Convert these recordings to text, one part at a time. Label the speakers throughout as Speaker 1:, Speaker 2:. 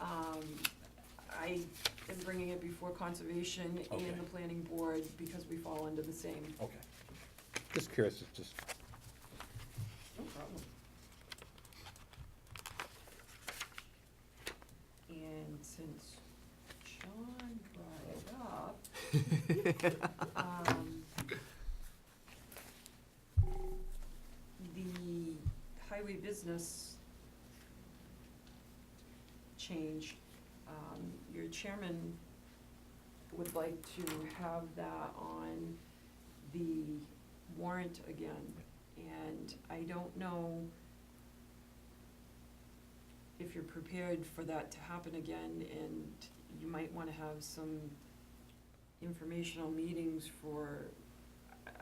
Speaker 1: Um, I am bringing it before conservation
Speaker 2: Okay.
Speaker 1: and the planning board because we fall under the same.
Speaker 2: Okay.
Speaker 3: Just curious, it's just,
Speaker 1: No problem. And since John brought it up, um, the highway business change, um, your chairman would like to have that on the warrant again. And I don't know if you're prepared for that to happen again, and you might wanna have some informational meetings for,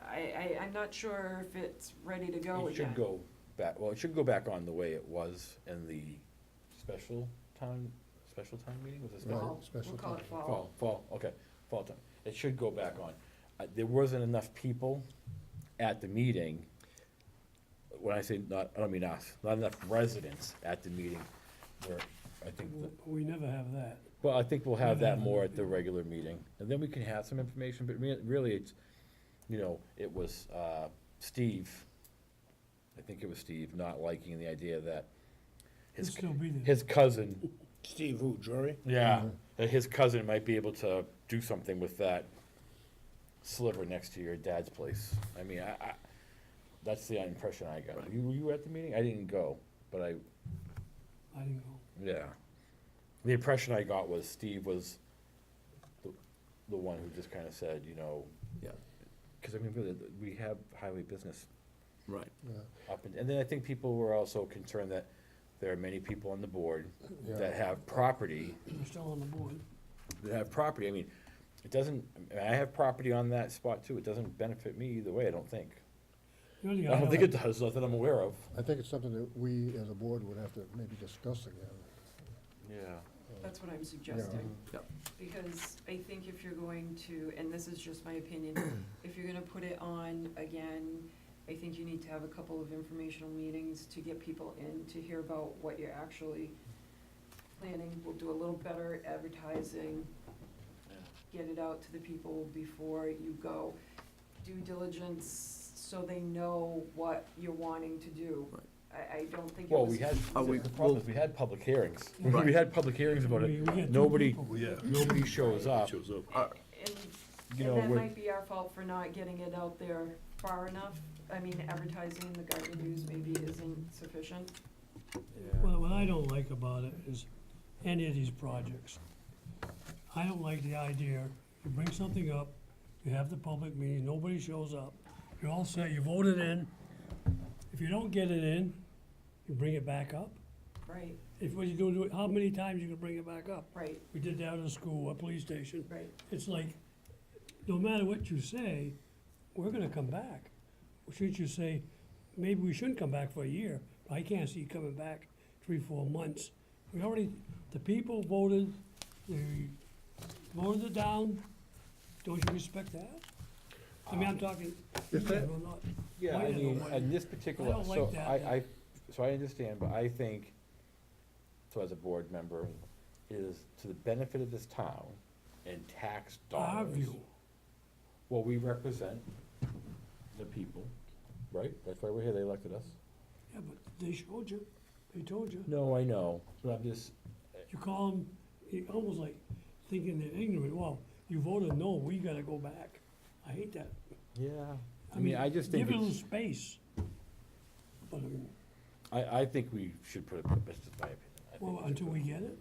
Speaker 1: I, I, I'm not sure if it's ready to go
Speaker 2: It should
Speaker 1: again.
Speaker 2: go back, well, it should go back on the way it was in the special town, special town meeting, was it
Speaker 3: Right.
Speaker 2: special?
Speaker 1: Fall.
Speaker 3: special
Speaker 1: We'll call it
Speaker 3: topic.
Speaker 1: fall.
Speaker 2: Fall, fall, okay, fall time. It should go back on. Uh, there wasn't enough people at the meeting. When I say not, I don't mean us, not enough residents at the meeting where, I think, the-
Speaker 4: We never have that.
Speaker 2: well, I think we'll have that more at the regular meeting. And then we can have some information, but rea- really, it's, you know, it was, uh, Steve, I think it was Steve, not liking the idea that
Speaker 4: We'd
Speaker 2: his,
Speaker 4: still be there.
Speaker 2: his cousin
Speaker 5: Steve who, Drury?
Speaker 2: yeah,
Speaker 3: Mhm.
Speaker 2: that his cousin might be able to do something with that sliver next to your dad's place. I mean, I, I, that's the impression I got. You, were you at the meeting? I didn't go, but I,
Speaker 4: I didn't go.
Speaker 2: yeah. The impression I got was Steve was the, the one who just kind of said, you know.
Speaker 5: Yeah.
Speaker 2: Because I mean, really, th- we have highway business
Speaker 5: Right.
Speaker 3: yeah,
Speaker 2: up and, and then I think people were also concerned that there are many people on the board
Speaker 3: yeah.
Speaker 2: that have property
Speaker 4: We're still on the board.
Speaker 2: that have property, I mean, it doesn't, I mean, I have property on that spot too, it doesn't benefit me either way, I don't think.
Speaker 4: The only
Speaker 2: I don't think it
Speaker 4: other-
Speaker 2: does, not that I'm aware of.
Speaker 3: I think it's something that we as a board would have to maybe discuss again.
Speaker 2: Yeah.
Speaker 1: That's what I'm suggesting.
Speaker 5: Yep.
Speaker 1: Because I think if you're going to, and this is just my opinion, if you're gonna put it on again, I think you need to have a couple of informational meetings to get people in to hear about what you're actually planning. We'll do a little better advertising, get it out to the people before you go. Due diligence, so they know what you're wanting to do.
Speaker 5: Right.
Speaker 1: I, I don't think it
Speaker 2: Well,
Speaker 1: was.
Speaker 2: we had,
Speaker 5: Are we-
Speaker 2: the problem is, we had public hearings, we
Speaker 5: Right.
Speaker 2: had public hearings about
Speaker 4: we-
Speaker 2: it,
Speaker 4: we had two
Speaker 2: nobody,
Speaker 4: people.
Speaker 2: nobody shows up,
Speaker 1: And
Speaker 2: you
Speaker 1: And
Speaker 2: know,
Speaker 1: that
Speaker 2: we're,
Speaker 1: might be our fault for not getting it out there far enough. I mean, advertising in the Garden News maybe isn't sufficient.
Speaker 4: Well, what I don't like about it is any of these projects. I don't like the idea, you bring something up, you have the public meeting, nobody shows up. You're all set, you voted in. If you don't get it in, you bring it back up.
Speaker 1: Right,
Speaker 4: If what you do, do it- how many times you can bring it back up?
Speaker 1: right,
Speaker 4: We did that at a school, a police station.
Speaker 1: right.
Speaker 4: it's like, no matter what you say, we're gonna come back. Shouldn't you say, maybe we shouldn't come back for a year, but I can't see you coming back three, four months. We already, the people voted, they voted it down, don't you respect that? I mean, I'm talking,
Speaker 3: If that-
Speaker 4: yeah, I'm not-
Speaker 2: yeah,
Speaker 4: Why
Speaker 2: I
Speaker 4: did it
Speaker 2: mean,
Speaker 4: work?
Speaker 2: and this particular,
Speaker 4: don't
Speaker 2: so
Speaker 4: like that.
Speaker 2: I, I, so I understand, but I think, so as a board member, it is to the benefit of this town and tax dollars.
Speaker 4: our view,
Speaker 2: Well, we represent the people, right? That's why we're here, they elected us.
Speaker 4: yeah, but they showed you, they told you.
Speaker 2: No, I know, but I'm just,
Speaker 4: You call them, you almost like thinking they're ignorant, well, you voted no, we gotta go back. I hate that.
Speaker 2: yeah, I mean, I just think,
Speaker 4: Give it a little
Speaker 2: it's-
Speaker 4: space. But, um,
Speaker 2: I, I think we should put it, that's just my opinion. I think
Speaker 4: well,
Speaker 2: we should
Speaker 4: until
Speaker 2: put
Speaker 4: we
Speaker 2: it-
Speaker 4: get it,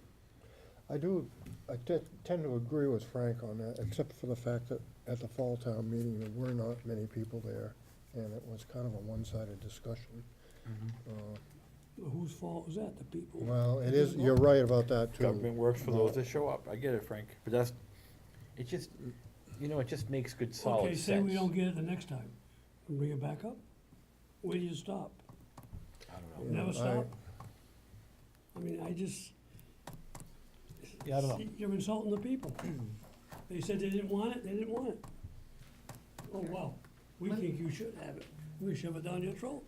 Speaker 3: I do, I te- tend to agree with Frank on that, except for the fact that at the fall town meeting, there were not many people there, and it was kind of a one-sided discussion. Uh,
Speaker 4: whose fault is that? The people?
Speaker 3: Well, it is, you're right about that, too.
Speaker 2: Government works for those
Speaker 3: No.
Speaker 2: that show up, I get it, Frank, but that's, it just, you know, it just makes good
Speaker 4: Okay,
Speaker 2: solid sense.
Speaker 4: say we don't get it the next time, we bring it back up? Where do you stop?
Speaker 2: I don't know.
Speaker 3: Yeah, I-
Speaker 4: Never stop? I mean, I just.
Speaker 2: Yeah, I don't know. Hmm.
Speaker 4: You're insulting the people. They said they didn't want it, they didn't want it. Oh, well, we
Speaker 1: Let-
Speaker 4: think you should have it, we shove it down your throat.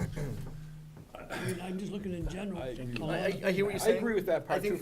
Speaker 4: I mean, I'm just looking in general.
Speaker 2: I
Speaker 4: a
Speaker 2: agree.
Speaker 4: lot
Speaker 5: I,
Speaker 4: of-
Speaker 5: I- I hear what
Speaker 2: I
Speaker 5: you're saying.
Speaker 2: agree with that part
Speaker 5: I think
Speaker 2: too,